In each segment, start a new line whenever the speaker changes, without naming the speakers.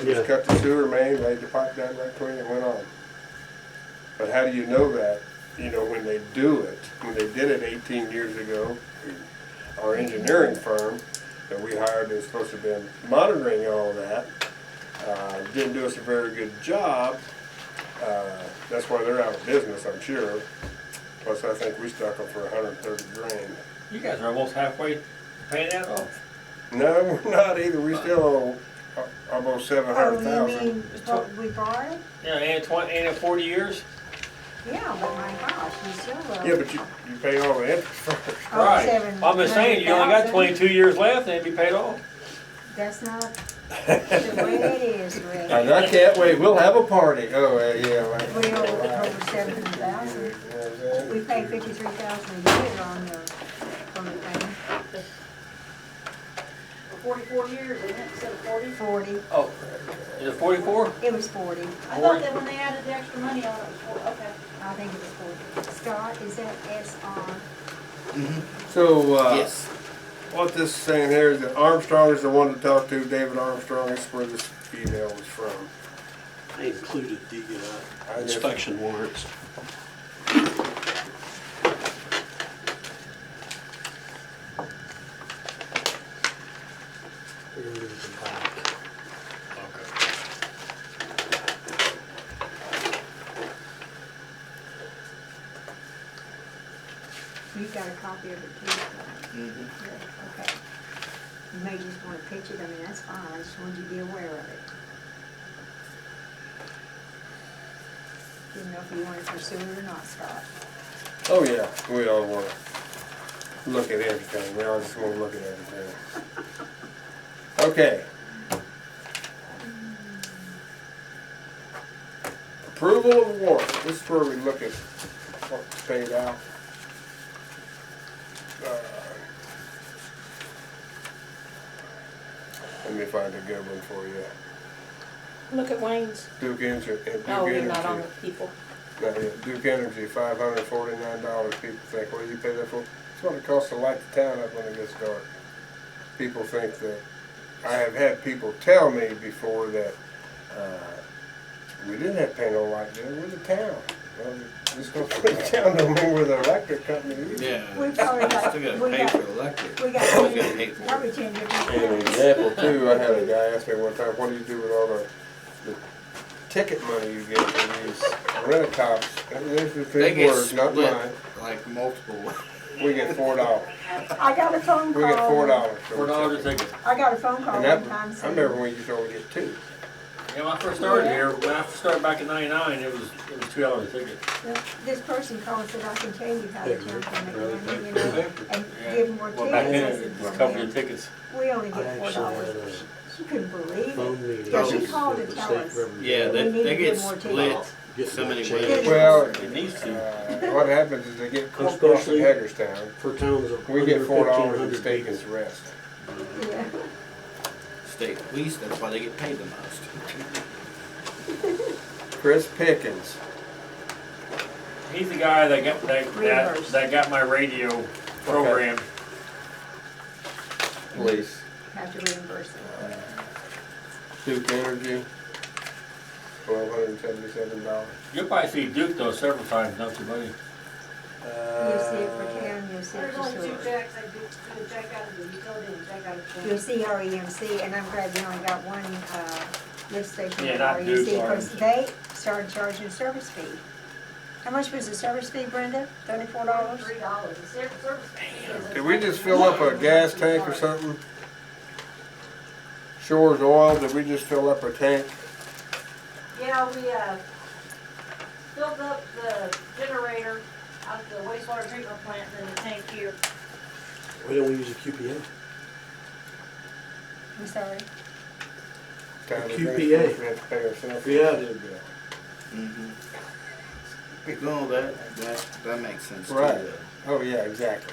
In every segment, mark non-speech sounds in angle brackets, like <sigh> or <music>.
They just cut the sewer main, laid the pipe down right between it, went on. But how do you know that, you know, when they do it, when they did it eighteen years ago, our engineering firm that we hired is supposed to have been monitoring all that, uh, didn't do us a very good job. Uh, that's why they're out of business, I'm sure. Plus, I think we stuck them for hundred and thirty grand.
You guys are almost halfway paying that off.
No, we're not either, we still owe uh, almost seven
Oh,
hundred
you
thousand.
mean what we borrowed?
Yeah, and twenty, and forty years?
Yeah, but my gosh, you still owe.
Yeah, but you, you pay all the interest first.
Oh, seven
I'm just saying, you only got
hundred thousand.
twenty-two years left and it'd be paid off.
That's not the way it is,
<laughs>
<laughs>
Rick.
And I can't wait, we'll have a party. Oh, uh, yeah. right.
We owe over seven thousand. We pay fifty-three thousand a year on the, on the thing,
For Forty-four years, isn't it, instead of forty?
forty,
Oh. Is it forty-four?
it was forty,
I thought that when they added the extra money on it, it was four, okay.
I think it was forty. Scott, is that S R?
So, uh,
Yes.
what this is saying here is that Armstrong is the one to talk to, David Armstrong is where this email was from.
I included the
I
uh,
guess-
inspection warrants.
You got a copy of it too? Scott?
Mm-hmm.
Mhm.
Yeah, Okay. You may just wanna pitch it, I mean, that's fine, I just wanted you to be aware of it. Didn't know if you wanted to pursue it or not, Scott.
Oh, yeah, we all wanna look at everything, we all just wanna look at everything. Okay. Approval of warrant, this is where we look at what's paid out. Uh, Let me find a good one for you.
Look at Wayne's.
Duke Energy, uh, Duke
Oh, you're not on
Energy,
the people.
not yet. Duke Energy, five hundred forty-nine dollars, people think, what do you pay that for? It's what it costs to light the town up when it gets dark. People think that, I have had people tell me before that, uh, we didn't have to pay no light bill, we're the town. Well, This <laughs> don't pay the town no more with the electric company either.
Yeah.
We probably got-
Uh, Still
we
gotta pay
got-
for electric.
We
<laughs>
got
Still gotta pay
ten,
for
probably
it.
ten
An
different towns.
example too, I had a guy ask me one time, what do you do with all the, the ticket money you get from these rent-a-cops? And This is
They
his
get
words, not mine.
split like multiple ways.
We get four dollars.
I got a phone
We
call.
get four dollars. for
Four
the
dollars a
ticket.
ticket.
I got a phone call
And
one time
that, I remember
saying,
when you used to only get two.
Yeah, when I first started here, when I first started back in ninety-nine, it was, it was two dollars a ticket.
this person called and said, I can tell you how the town can make money, you know, and
Yeah.
give more
Well, back then,
tickets.
it was a couple of tickets.
We only
I
get four
actually had
dollars.
a
She couldn't believe it.
phone meeting.
Yeah,
Oh,
she
called to
with the
tell
state
us.
representative.
Yeah, they,
need to
they
get
get
more
split
tickets.
Getting
so
that
many
changed.
ways.
Well,
It needs to.
uh, what happens is they get court across in
Especially-
Hagerstown.
For towns of
We get
under
four dollars and the
1,500
state
people.
gets the rest.
Yeah.
state police, that's why they get paid the most.
Chris Pickens.
He's the guy that got, that, that, that got my radio program.
Police.
Have to reimburse it.
Duke Energy. Twelve hundred and seventy-seven dollars.
You'll probably see Duke though several times, don't you, buddy?
Uh,
You'll see it for town, you'll see it
There's
for
only two
sewer.
checks, I do, do a check out of the utility and a check out of
You'll
the.
see REMC, and I'm glad we only got one, uh, lift station
Yeah,
at
not Duke,
REMC, because
orange.
they started charging a service fee. How much was the service fee, Brenda? Thirty-four dollars?
Three dollars, the ser- service.
Did we just fill up a gas tank or something? Shores Oil, did we just fill up a tank?
Yeah, we, uh, filled up the generator out the wastewater treatment plant and the tank here.
Why don't we use a QPA?
I'm sorry.
Time to
QPA.
drink, we have to pay ourselves.
Yeah.
Mm-hmm. No, that, that, that makes sense too.
Right.
though.
Oh, yeah, exactly.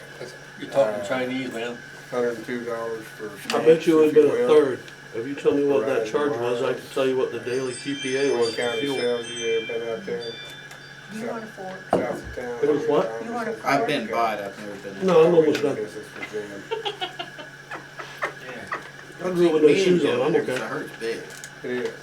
You're
Uh,
talking Chinese, man.
Hundred and two dollars for.
I bet you
would
it'd been a third. If you tell me what that
Verizon
charge was, I
Wireless.
could tell you what the daily QPA was
What
for
county
fuel.
sales you ever been out there,
You
Yeah.
want a four?
south of town?
It was what?
You wanna-
I've been by it, I've never been.
No, I'm almost done.
Business with them.
Yeah.
I'm rolling no shoes on, I'm
Because it
okay.
hurts big.
It is.